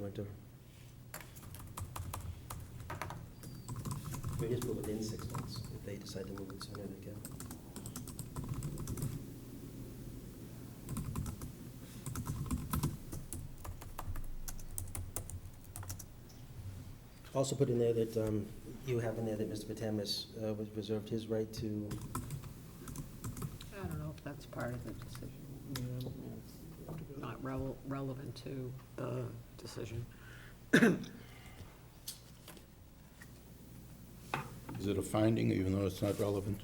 winter. We just move within six months. If they decide to move it sooner, they can. Also put in there that um, you have in there that Mr. Patamas uh, was reserved his right to, I don't know if that's part of the decision, not rel- relevant to the decision. Is it a finding, even though it's not relevant?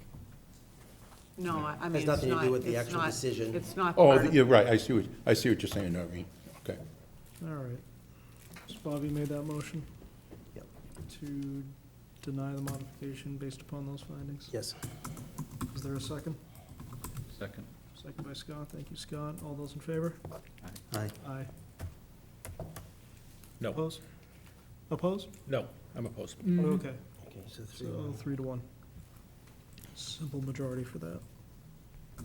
No, I I mean, Has it's not. nothing to do with the it's actual not- decision. It's not Oh, part of- you're right, I see what, I see what you're saying, Noreen. Okay. All right. So Bobby made that motion? Yep. To deny the modification based upon those findings. yes, Is there a second? Second. Second by Scott. Thank you, Scott. All those in favor? aye. Aye. No. Oppose? Oppose? No, I'm opposed. Mm. Mm. Okay, Okay, so three. so three to one. Simple majority for that.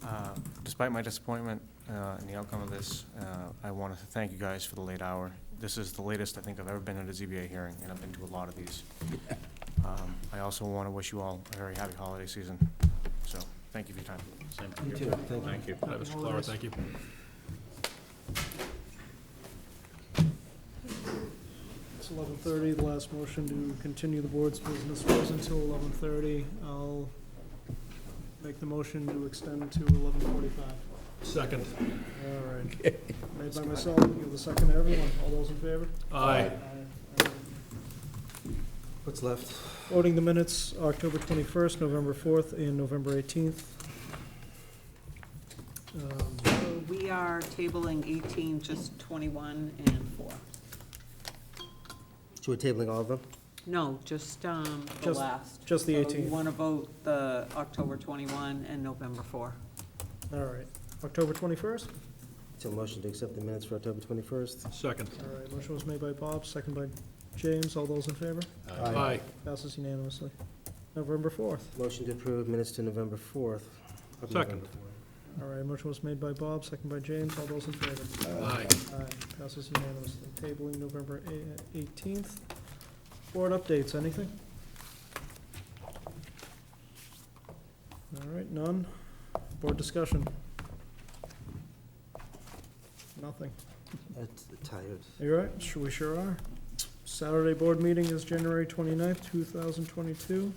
Uh, Despite my disappointment uh, in the outcome of this, uh, I want to thank you guys for the late hour. This is the latest I think I've ever been at a ZBA hearing, and I've been to a lot of these. Um, I also want to wish you all a very happy holiday season, so thank you for your time. Same You too, here. thank you. Thank you. Happy Mr. Clara, holidays. thank you. It's eleven thirty, the last motion to continue the board's business was until eleven thirty. I'll make the motion to extend to eleven forty-five. Second. All right. Made by myself, give the second to everyone. All those in favor? Aye. Aye. What's left? Voting the minutes, October twenty-first, November fourth, and November eighteenth. Um, So We are tabling 18, just 21 and 4. So we're tabling all of them? No, just um, the Just- last. just the So 18. You want to vote the October 21 and November 4. All right, October twenty-first? So motion to accept the minutes for October 21st? Second. All right, motion was made by Bob, second by James. All those in favor? Aye. Passes unanimously. November fourth. Motion to approve minutes to November 4th. of Second. November 4th. All right, motion was made by Bob, second by James. All those in favor? Aye. Aye, passes unanimously. Tabling November eighteenth. Board updates, anything? All right, none. Board discussion? Nothing. Uh, Tired. You all right? Sure, We sure are. Saturday board meeting is January twenty-ninth, two thousand twenty-two.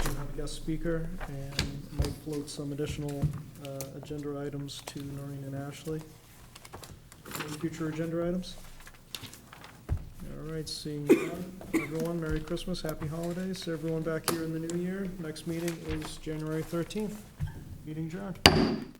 We have a guest speaker, and Mike floats some additional uh, agenda items to Noreen and Ashley. Any future agenda items? All right, seeing none. Everyone, Merry Christmas, Happy Holidays. Everyone back here in the new year. Next meeting is January thirteenth. Meeting adjourned.